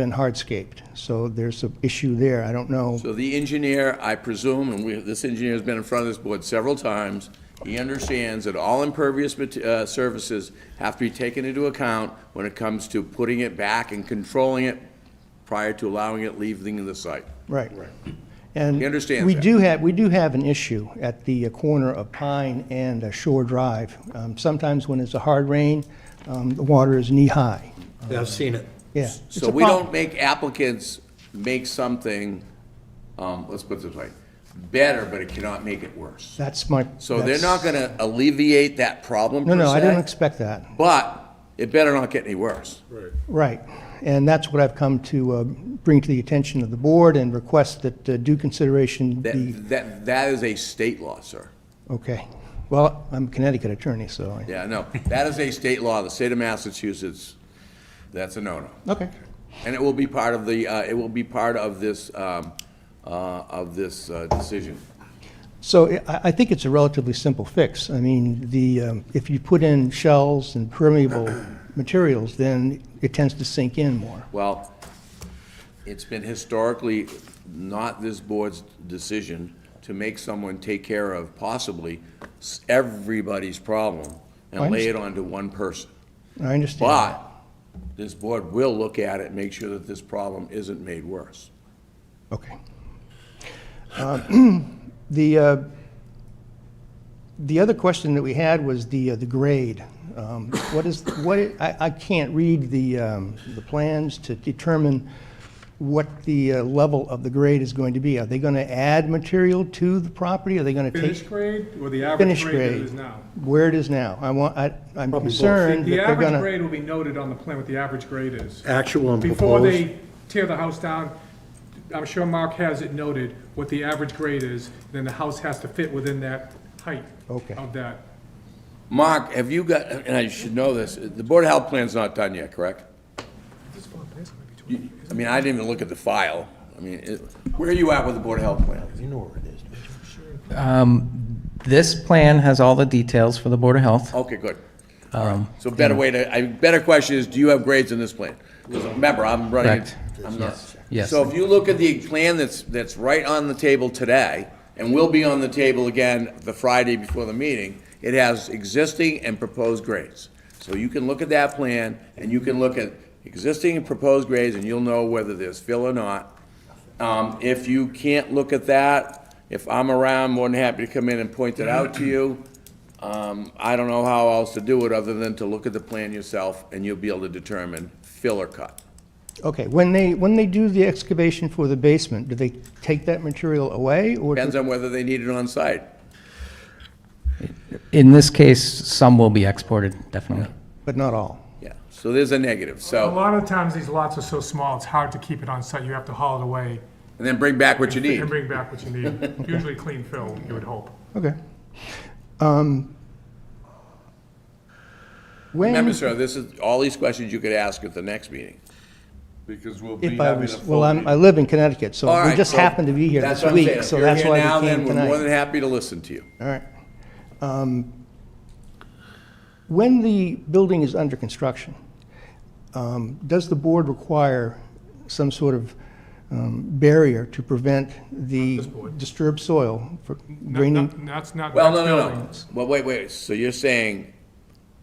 been hardscaped. So there's an issue there. I don't know. So the engineer, I presume, and we, this engineer's been in front of this board several times, he understands that all impervious mate- uh, surfaces have to be taken into account when it comes to putting it back and controlling it prior to allowing it leaving the site. Right. And. He understands We that. do have, we do have an issue at the corner of Pine and uh, Shore Drive. Um, Sometimes when it's a hard rain, um, the water is knee-high. I've seen it. Yeah. it's So a we problem. don't make applicants make something, um, let's put it this way, better, but it cannot make it worse. That's my. So they're that's- not gonna alleviate that problem No, per no, I didn't se, expect that. But it better not get any worse. Right. And that's what I've come to uh, bring to the attention of the board and request that uh, due consideration That, be, that, that is a state law, sir. okay. Well, I'm a Connecticut attorney, so I, Yeah, no, that is a state law, the state of Massachusetts, that's a no-no. okay. And it will be part of the, uh, it will be part of this, um, uh, of this, uh, decision. So I- I, I think it's a relatively simple fix. I mean, the, um, if you put in shells and permeable materials, then it tends to sink in more. Well, it's been historically not this board's decision to make someone take care of possibly s- everybody's problem I and lay it onto one person. I understand. But this board will look at it, and make sure that this problem isn't made worse. Okay. Uh, The, uh, the other question that we had was the, uh, the grade. Um, What is, what, i- I, I can't read the, um, the plans to determine what the uh, level of the grade is going to be. Are they going to add material to the property? Are they going to Finish take grade or the average finished grade that grade? it is now? Where it is now? I want, I, I'm Probably both. concerned that The they're average going to. grade will be noted on the plan what the average grade is. Actual and Before proposed. they tear the house down, I'm sure Mark has it noted what the average grade is, then the house has to fit within that height Okay. of that. Mark, have you got, and I should know this, the Board of Health plan's not done yet, correct? You- I mean, I didn't even look at the file. I mean, it- where are you at with the Board of Health plan? You know where it is. don't you? This plan has all the details for the Board of Health. Okay, good. All right. So better way to, I, better question is, do you have grades in this plan? Because remember, I'm running, Correct. I'm not. yes. So if you look at the plan that's, that's right on the table today, and will be on the table again the Friday before the meeting, it has existing and proposed grades. So you can look at that plan, and you can look at existing and proposed grades, and you'll know whether there's fill or not. Um, if you can't look at that, if I'm around, more than happy to come in and point it out to you. Um, I don't know how else to do it other than to look at the plan yourself and you'll be able to determine fill or cut. Okay, when they, when they do the excavation for the basement, do they take that material away or? do- Depends on whether they need it on site. In this case, some will be exported, definitely. But not all? Yeah, so there's a negative, A so, lot of times, these lots are so small, it's hard to keep it on site. You have to haul it away and then bring back what you need. and bring back what you need. Usually clean fill, you would hope. Okay. Um, Remember, When, sir, this is, all these questions you could ask at the next meeting. Because we'll be if I having a was, full well, I'm, I meeting. live in Connecticut, so All we right, just so happened to be here that's this what I'm saying. week, If so you're that's here why now, we then came We're more tonight. than happy to listen to you. All right. Um, When the building is under construction, um, does the board require some sort of um, barrier to prevent the disturbed soil for draining? Not- That's not. Well, no, that's no, no. buildings. Well, wait, wait, so you're saying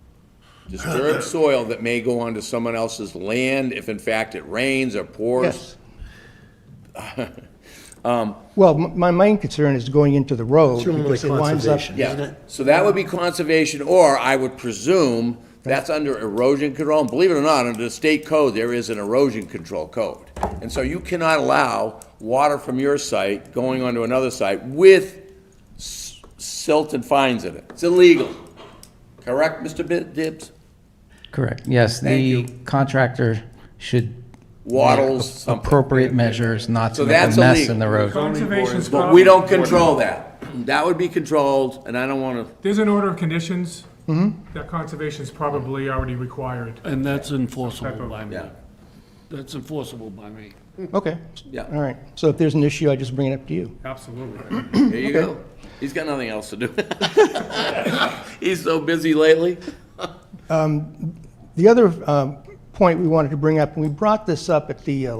disturbed soil that may go onto someone else's land if in fact it rains or pours? Yes. Um, Well, m- my main concern is going into the road It's really because it winds up. conservation, isn't Yeah, it? so that would be conservation, or I would presume that's under erosion control. And Believe it or not, under the state code, there is an erosion control code. And so you cannot allow water from your site going onto another site with s- silt and fines in it. It's illegal. Correct, Mr. Bi- Dibbs? Correct, yes. Thank The you. contractor should. Waddles, make something. Appropriate measures not So to make a that's mess illegal. in the road. Conservation's. But we don't control that. That would be controlled, and I don't want to, There's an order of conditions that conservation's probably already required. And that's Type enforceable of- by me. yeah. That's enforceable by me. Okay. Yeah. All right. So if there's an issue, I just bring it up to you. Absolutely. There you go. He's got nothing else to do. He's so busy lately. The other um, point we wanted to bring up, and we brought this up at the uh,